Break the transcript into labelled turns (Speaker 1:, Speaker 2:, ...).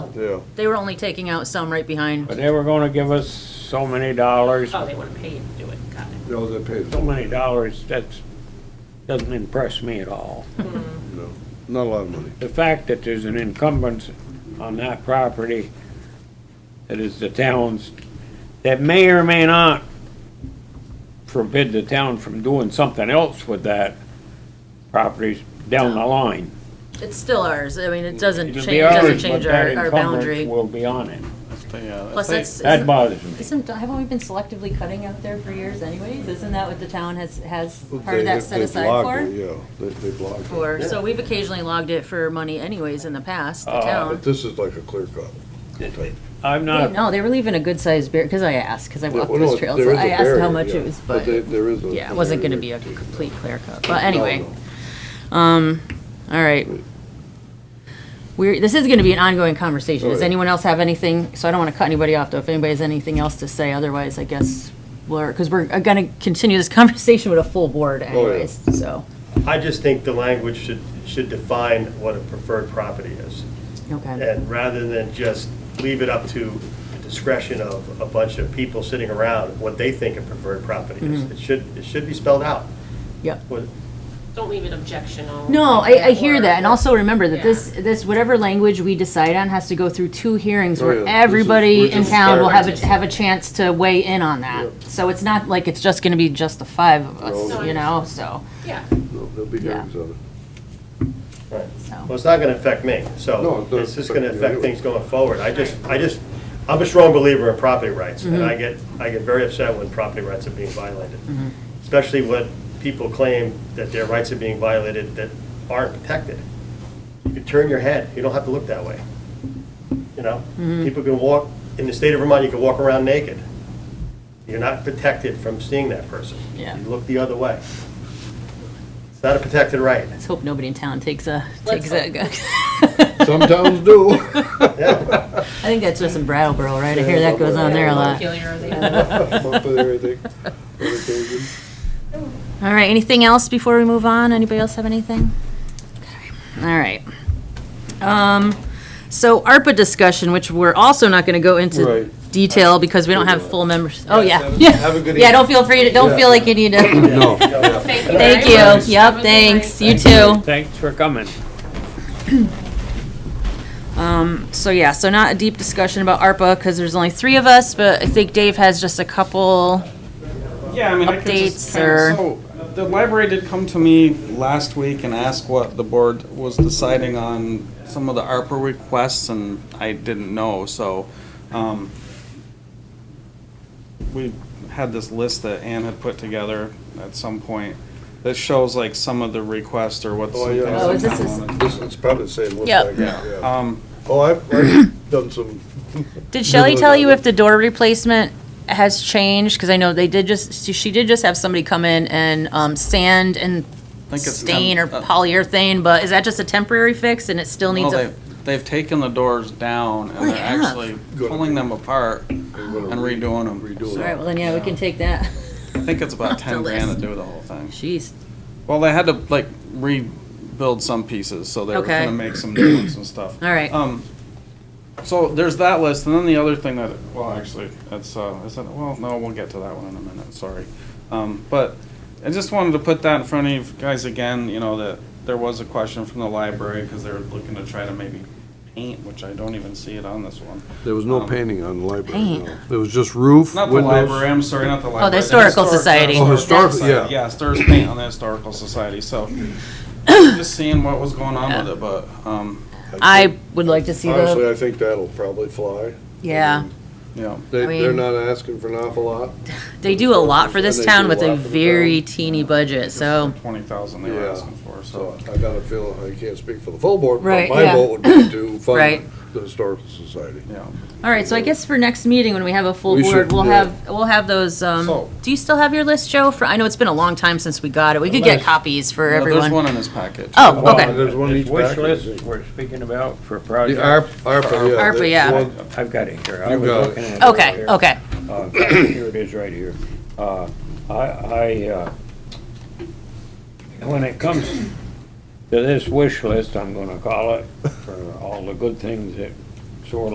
Speaker 1: Yeah.
Speaker 2: They were only taking out some right behind.
Speaker 3: But they were gonna give us so many dollars,
Speaker 4: Oh, they would have paid to do it, got it.
Speaker 1: No, they paid,
Speaker 3: so many dollars, that's, doesn't impress me at all.
Speaker 1: no, not a lot of money.
Speaker 3: The fact that there's an encumbrance on that property that is the town's, that may or may not forbid the town from doing something else with that property down the line.
Speaker 2: It's still ours. I mean, it doesn't
Speaker 3: It'll
Speaker 2: change,
Speaker 3: be
Speaker 2: doesn't
Speaker 3: ours, but
Speaker 2: change
Speaker 3: that
Speaker 2: our, our
Speaker 3: encumbrance
Speaker 2: boundary.
Speaker 3: Will be on it.
Speaker 5: That's the, uh,
Speaker 2: Plus,
Speaker 5: that's
Speaker 2: that's.
Speaker 5: the-
Speaker 3: That bothers me.
Speaker 2: Isn't, haven't we been selectively cutting out there for years anyways? Isn't that what the town has, has part
Speaker 1: They-
Speaker 2: of that
Speaker 1: if
Speaker 2: set
Speaker 1: they
Speaker 2: aside
Speaker 1: blocked
Speaker 2: for?
Speaker 1: it, Yeah, they, they blocked it.
Speaker 2: For, so we've occasionally logged it for money anyways in the past, the
Speaker 3: Uh,
Speaker 1: But
Speaker 2: town.
Speaker 1: this is like a clear cut. type.
Speaker 3: I'm
Speaker 2: They-
Speaker 3: not,
Speaker 2: No, they were leaving a good sized bear, cause I asked, cause I
Speaker 1: Yeah,
Speaker 2: walked
Speaker 1: well,
Speaker 2: those
Speaker 1: no,
Speaker 2: trails.
Speaker 1: there
Speaker 2: so
Speaker 1: is a
Speaker 2: I asked
Speaker 1: barrier,
Speaker 2: how much
Speaker 1: yeah,
Speaker 2: it was,
Speaker 1: But there,
Speaker 2: but,
Speaker 1: there is a.
Speaker 2: yeah, it wasn't gonna be a
Speaker 1: barrier.
Speaker 2: complete clear cut. But anyway,
Speaker 1: No, no.
Speaker 2: um, all right. We're, this is gonna be an ongoing conversation.
Speaker 1: Oh,
Speaker 2: Does
Speaker 1: yeah.
Speaker 2: anyone else have anything? So I don't wanna cut anybody off though. If anybody has anything else to say, otherwise I guess we're, cause we're uh, gonna continue this conversation with a full board
Speaker 1: Oh, yeah.
Speaker 2: anyways, so,
Speaker 6: I just think the language should, should define what a preferred property is.
Speaker 2: okay.
Speaker 6: And rather than just leave it up to the discretion of a bunch of people sitting around, what they think a preferred property is. It should, it should be spelled out.
Speaker 2: Yep.
Speaker 6: What-
Speaker 4: Don't leave it objectional.
Speaker 2: No,
Speaker 4: like
Speaker 2: I, I hear
Speaker 4: or-
Speaker 2: that, and also remember that
Speaker 4: Yeah.
Speaker 2: this, this, whatever language we decide on has to go through two hearings
Speaker 1: Oh, yeah.
Speaker 2: where
Speaker 1: This is- we're
Speaker 2: everybody in
Speaker 1: just
Speaker 2: town will have, a
Speaker 4: starting.
Speaker 2: have a chance to weigh in on that. So it's not like it's just gonna be just the five of
Speaker 1: No.
Speaker 2: us, you know, so,
Speaker 4: Yeah,
Speaker 1: No, There'll be
Speaker 2: Yeah.
Speaker 1: hearings on it.
Speaker 6: right. Well,
Speaker 2: so.
Speaker 6: it's not gonna affect me,
Speaker 1: No,
Speaker 6: so
Speaker 1: it doesn't
Speaker 6: it's just gonna
Speaker 1: affect you
Speaker 6: affect
Speaker 1: anyway.
Speaker 6: things going forward. I just, I just, I'm a strong believer in property rights, and
Speaker 2: Mm-hmm.
Speaker 6: I get, I get very upset when property rights are being violated. Especially when people claim that their rights are being violated that aren't protected. You can turn your head, you don't have to look that way. You know,
Speaker 2: Mm-hmm.
Speaker 6: people can walk, in the state of Vermont, you can walk around naked. You're not protected from seeing that person.
Speaker 2: Yeah.
Speaker 6: You look the other way. It's not a protected right.
Speaker 2: Let's hope nobody in town takes a,
Speaker 4: Let's
Speaker 2: takes a,
Speaker 1: Some towns do.
Speaker 6: Yeah,
Speaker 2: I think that's just in Brattleboro, right? I hear that goes on Oh, there a lot.
Speaker 4: peculiar, they
Speaker 1: Up there, everything, other occasions.
Speaker 2: All right, anything else before we move on? Anybody else have anything? Okay, All right. Um, so ARPA discussion, which we're also not gonna go into
Speaker 1: Right.
Speaker 2: detail because we don't have full members. Oh, yeah.
Speaker 1: have a-
Speaker 2: Yeah.
Speaker 1: have a good
Speaker 2: Yeah, don't
Speaker 1: evening.
Speaker 2: feel free to, don't feel like you need to.
Speaker 1: No.
Speaker 4: Thank
Speaker 2: Thank
Speaker 4: very much.
Speaker 2: you. Yep,
Speaker 4: Have a good night.
Speaker 2: thanks. You too.
Speaker 3: thanks for coming.
Speaker 2: Mm, So yeah, so not a deep discussion about ARPA because there's only three of us, but I think Dave has just a couple.
Speaker 5: Yeah, I mean, I could
Speaker 2: Updates
Speaker 5: just kind
Speaker 2: or-
Speaker 5: of, so, the library did come to me last week and ask what the board was deciding on some of the ARPA requests, and I didn't know, so, um, we had this list that Ann had put together at some point, that shows like some of the requests or what's.
Speaker 1: Oh,
Speaker 5: some
Speaker 1: yeah.
Speaker 5: things
Speaker 1: Oh,
Speaker 5: that
Speaker 2: is this
Speaker 5: town
Speaker 2: is-
Speaker 5: wanted.
Speaker 1: This, it's probably the same. looks
Speaker 2: Yep.
Speaker 1: like it,
Speaker 5: Yeah, um,
Speaker 1: Oh, I've, I've done some,
Speaker 2: Did Shelley tell you if the door replacement has changed? Because I know they did just, she did just have somebody come in and um, sand and
Speaker 5: I think it's
Speaker 2: stain or
Speaker 5: temp- uh,
Speaker 2: polyurethane, but is that just a temporary fix and it still
Speaker 5: Well,
Speaker 2: needs a?
Speaker 5: they've, they've taken the doors down
Speaker 2: Oh,
Speaker 5: and
Speaker 2: they
Speaker 5: they're
Speaker 2: have?
Speaker 5: actually
Speaker 1: Good.
Speaker 5: pulling them apart and
Speaker 1: and
Speaker 5: redoing them.
Speaker 1: redoing
Speaker 2: All
Speaker 1: it.
Speaker 2: right, well then, yeah, we can take that.
Speaker 5: I think it's about
Speaker 2: Off the
Speaker 5: ten grand
Speaker 2: list.
Speaker 5: to do the whole thing.
Speaker 2: Jeez.
Speaker 5: Well, they had to like rebuild some pieces, so they were
Speaker 2: Okay.
Speaker 5: gonna make some new ones and stuff.
Speaker 2: All right.
Speaker 5: Um, so there's that list, and then the other thing that, well, actually, that's, uh, is that, well, no, we'll get to that one in a minute, sorry. Um, but I just wanted to put that in front of you guys again, you know, that there was a question from the library, because they were looking to try to maybe paint, which I don't even see it on this one.
Speaker 1: There was no
Speaker 5: Um,
Speaker 1: painting on the library,
Speaker 2: Paint.
Speaker 1: no. There was just roof,
Speaker 5: Not the
Speaker 1: windows.
Speaker 5: library, I'm sorry, not the library.
Speaker 2: Oh, Historical Society.
Speaker 1: Oh, historical,
Speaker 5: Society,
Speaker 1: yeah.
Speaker 5: Yes, there's paint on the Historical Society, so just seeing what was going on with it, but, um,
Speaker 2: I would like to see
Speaker 1: Honestly,
Speaker 2: the,
Speaker 1: I think that'll probably fly.
Speaker 2: yeah.
Speaker 5: yeah.
Speaker 1: They,
Speaker 2: I mean-
Speaker 1: they're not asking for an awful lot.
Speaker 2: They do a lot for this
Speaker 1: They do
Speaker 2: town
Speaker 1: a
Speaker 2: with a
Speaker 1: lot for the
Speaker 2: very teeny budget, so.
Speaker 5: Twenty thousand they were
Speaker 1: Yeah.
Speaker 5: asking for,
Speaker 1: So
Speaker 5: so.
Speaker 1: I got a feeling, I can't speak for the full board, but
Speaker 2: Right,
Speaker 1: my
Speaker 2: yeah.
Speaker 1: vote would be to
Speaker 2: Right.
Speaker 1: fund the historical society.
Speaker 5: Yeah.
Speaker 2: All right, so I guess for next meeting, when we have a full
Speaker 1: We
Speaker 2: board,
Speaker 1: should
Speaker 2: we'll
Speaker 1: do it.
Speaker 2: have, we'll have those, um,
Speaker 5: So-
Speaker 2: do you still have your list, Joe? For, I know it's been a long time since we got it. We could get
Speaker 5: Unless-
Speaker 2: copies for
Speaker 5: No, There's one
Speaker 2: everyone.
Speaker 5: in this package.
Speaker 2: Oh, okay.
Speaker 1: Well, There's one
Speaker 3: This
Speaker 1: each
Speaker 3: wish
Speaker 1: back. I
Speaker 3: list
Speaker 1: think.
Speaker 3: we're speaking about for
Speaker 1: The
Speaker 3: projects.
Speaker 1: ARP- ARPA, yeah.
Speaker 2: ARPA,
Speaker 1: they-
Speaker 2: yeah.
Speaker 1: well,
Speaker 3: I've got it here. I
Speaker 1: You
Speaker 3: was
Speaker 1: got it.
Speaker 3: looking at it
Speaker 2: Okay,
Speaker 3: earlier.
Speaker 2: okay.
Speaker 3: Uh, Here it is, right here. Uh, I, I, uh, when it comes to this wish list, I'm gonna call it, for all the good things that